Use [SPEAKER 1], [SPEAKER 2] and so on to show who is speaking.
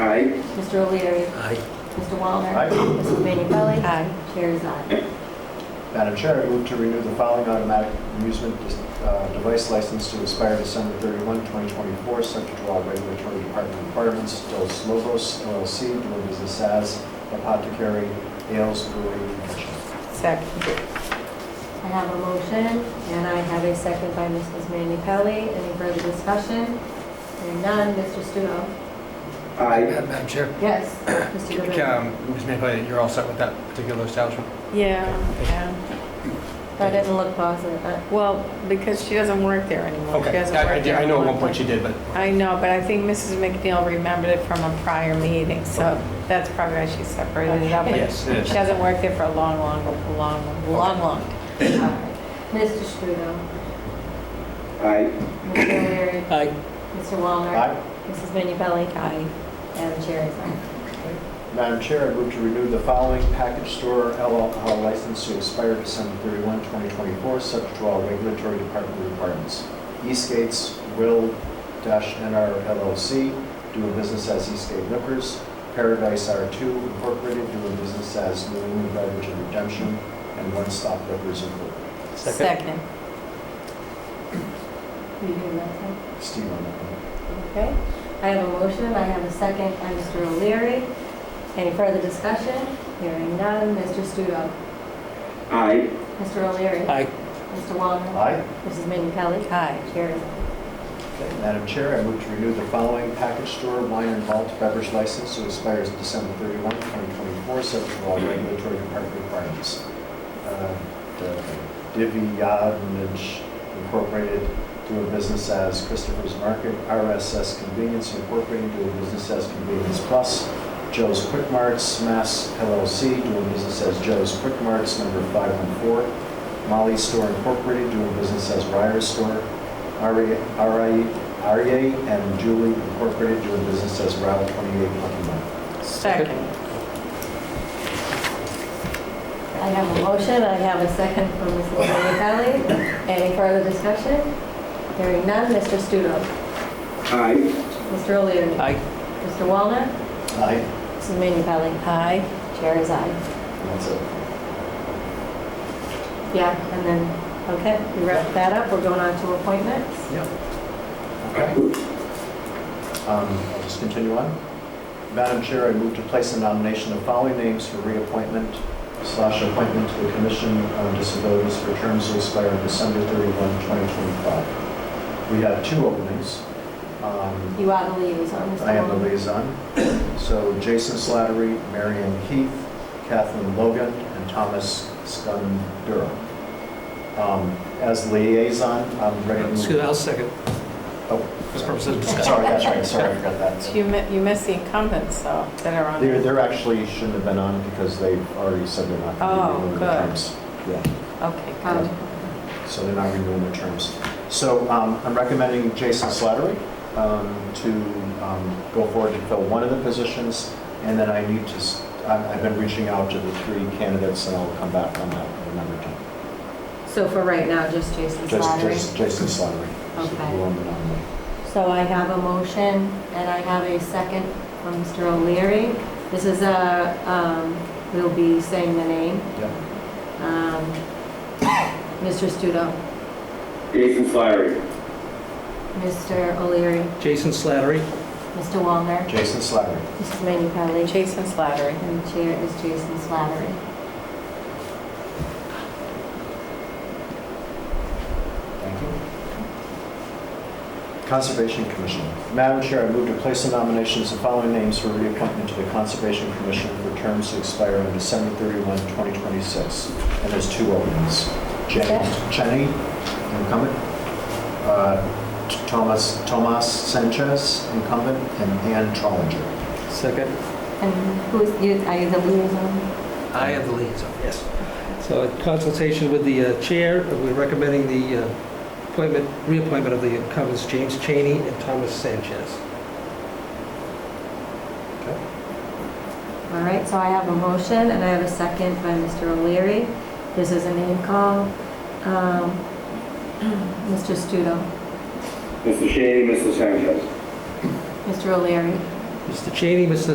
[SPEAKER 1] Aye.
[SPEAKER 2] Mr. O'Leary.
[SPEAKER 3] Aye.
[SPEAKER 2] Mr. Wallner.
[SPEAKER 1] Aye.
[SPEAKER 2] Mrs. Manu Pelli.
[SPEAKER 4] Aye.
[SPEAKER 2] Chair is aye.
[SPEAKER 1] Madam Chair, I move to renew the following automatic amusement uh, device license to expire December 31, 2024, subject to all regulatory department requirements. Dos Lobos LLC, doing business as Apothecary Ales Brewing Commission.
[SPEAKER 4] Second.
[SPEAKER 2] I have a motion, and I have a second by Mrs. Manu Pelli. Any further discussion? Hearing none, Mr. Studo.
[SPEAKER 1] Aye.
[SPEAKER 3] Madam Chair,
[SPEAKER 2] Yes, Mr. Goodwin.
[SPEAKER 3] um, Ms. Mayhew, you're all set with that particular establishment?
[SPEAKER 4] Yeah, yeah.
[SPEAKER 2] That didn't look positive. uh,
[SPEAKER 4] Well, because she doesn't work there anymore. She
[SPEAKER 3] Okay,
[SPEAKER 4] hasn't
[SPEAKER 3] I- I
[SPEAKER 4] worked
[SPEAKER 3] did-
[SPEAKER 4] there
[SPEAKER 3] I know at
[SPEAKER 4] in
[SPEAKER 3] one point she did, but
[SPEAKER 4] I know, but I think Mrs. McNeil remembered it from a prior meeting, so that's probably why she separated it out. but
[SPEAKER 3] yes, it
[SPEAKER 4] She
[SPEAKER 3] is.
[SPEAKER 4] hasn't worked there for a long, long, long, long, long. time.
[SPEAKER 2] all right. Mr. Studo.
[SPEAKER 1] Aye.
[SPEAKER 2] Mr. O'Leary.
[SPEAKER 3] Aye.
[SPEAKER 2] Mr. Wallner.
[SPEAKER 1] Aye.
[SPEAKER 2] Mrs. Manu Pelli. Aye. And the chair is aye.
[SPEAKER 1] Madam Chair, I move to renew the following package store alcohol license to expire December 31, 2024, subject to all regulatory department requirements. Eastgate's Will dash NR LLC, doing business as Eastgate Liquors. Paradise R2 Incorporated, doing business as New England Beverage and Redemption, and One Stop Liquors Incorporated.
[SPEAKER 4] Second.
[SPEAKER 2] You do that one.
[SPEAKER 1] Steve on that one.
[SPEAKER 2] Okay, I have a motion, I have a second by Mr. O'Leary. Any further discussion? Hearing none, Mr. Studo.
[SPEAKER 5] Aye.
[SPEAKER 2] Mr. O'Leary.
[SPEAKER 3] Aye.
[SPEAKER 2] Mr. Wallner.
[SPEAKER 1] Aye.
[SPEAKER 2] Mrs. Manu Pelli.
[SPEAKER 4] Aye.
[SPEAKER 2] Chair is aye.
[SPEAKER 1] Okay, Madam Chair, I move to renew the following package store wine and malt beverage license to expires December 31, 2024, subject to all regulatory department requirements. Uh, the Divyadnij Incorporated, doing business as Christopher's Market, RSS Convenience Incorporated, doing business as Convenience Plus, Joe's Quick Marts, Mass LLC, doing business as Joe's Quick Marts, number 514, Molly's Store Incorporated, doing business as Ryer's Store, RA RA and Julie Incorporated doing business as Route 28 Lucky Mile.
[SPEAKER 4] Second.
[SPEAKER 2] I have a motion, I have a second from Mrs. Manu Pelli. Any further discussion? Hearing none, Mr. Studo.
[SPEAKER 5] Aye.
[SPEAKER 2] Mr. O'Leary.
[SPEAKER 3] Aye.
[SPEAKER 2] Mr. Wallner.
[SPEAKER 1] Aye.
[SPEAKER 2] Mrs. Manu Pelli.
[SPEAKER 4] Aye.
[SPEAKER 2] Chair is aye.
[SPEAKER 1] And That's it.
[SPEAKER 2] Yeah, and then, okay, we wrap that up, we're going on to appointments.
[SPEAKER 1] Yep. Okay. Um, I'll just continue on. Madam Chair, I move to place a nomination of following names for reappointment slash appointment to the Commission on Disabilities for terms to expire on December 31, 2025. We have two openings. Um,
[SPEAKER 2] You are the liaison, Mr. Wallner.
[SPEAKER 1] I am the liaison. So Jason Slattery, Marion Keith, Kathleen Logan, and Thomas Scundura. Um, As liaison, I'm ready to move.
[SPEAKER 3] Excuse me, I'll second.
[SPEAKER 1] Oh,
[SPEAKER 3] For purposes of discussion.
[SPEAKER 1] Sorry, that's right, sorry, I forgot
[SPEAKER 4] So
[SPEAKER 1] that.
[SPEAKER 4] You mi- you missed the incumbents, though, that are on.
[SPEAKER 1] They're, they're actually shouldn't have been on because they've already said they're not going
[SPEAKER 4] Oh,
[SPEAKER 1] to be renewing
[SPEAKER 4] good.
[SPEAKER 1] their terms. Yeah,
[SPEAKER 4] Okay,
[SPEAKER 2] Um,
[SPEAKER 4] good.
[SPEAKER 1] so they're not renewing their terms. So um, I'm recommending Jason Slattery um, to um, go forward to fill one of the positions. And then I need to, s- I've I've been reaching out to the three candidates and I'll come back on that at another time.
[SPEAKER 2] So for right now, just Jason
[SPEAKER 1] Just-
[SPEAKER 2] Slattery.
[SPEAKER 1] just Jason Slattery. So
[SPEAKER 2] Okay.
[SPEAKER 1] we'll nominate.
[SPEAKER 2] So I have a motion and I have a second from Mr. O'Leary. This is a, um, we'll be saying the name.
[SPEAKER 1] Yep.
[SPEAKER 2] Um, Mr. Studo,
[SPEAKER 5] Jason Slattery.
[SPEAKER 2] Mr. O'Leary,
[SPEAKER 3] Jason Slattery.
[SPEAKER 2] Mr. Wallner,
[SPEAKER 1] Jason Slattery.
[SPEAKER 2] Mrs. Manu Pelli,
[SPEAKER 4] Jason Slattery.
[SPEAKER 2] and Chair is Jason Slattery.
[SPEAKER 1] Thank you. Conservation Commission. Madam Chair, I move to place the nominations of following names for reappointment to the Conservation Commission for terms to expire on December 31, 2026. And there's two openings. Jen-
[SPEAKER 2] Okay.
[SPEAKER 1] Jenny, incumbent, uh, T- Thomas, Tomas Sanchez, incumbent, and Ann Trollinger.
[SPEAKER 3] Second.
[SPEAKER 2] And who is, you- are you the liaison?
[SPEAKER 3] I am the liaison, yes. So in consultation with the uh, chair, we're recommending the uh, appointment, reappointment of the incumbents James Cheney and Thomas Sanchez.
[SPEAKER 2] All right, so I have a motion and I have a second by Mr. O'Leary. This is a name call. Um, Mr. Studo,
[SPEAKER 5] Mr. Shaney, Mr. Sanchez.
[SPEAKER 2] Mr. O'Leary,
[SPEAKER 3] Mr. Cheney, Mr.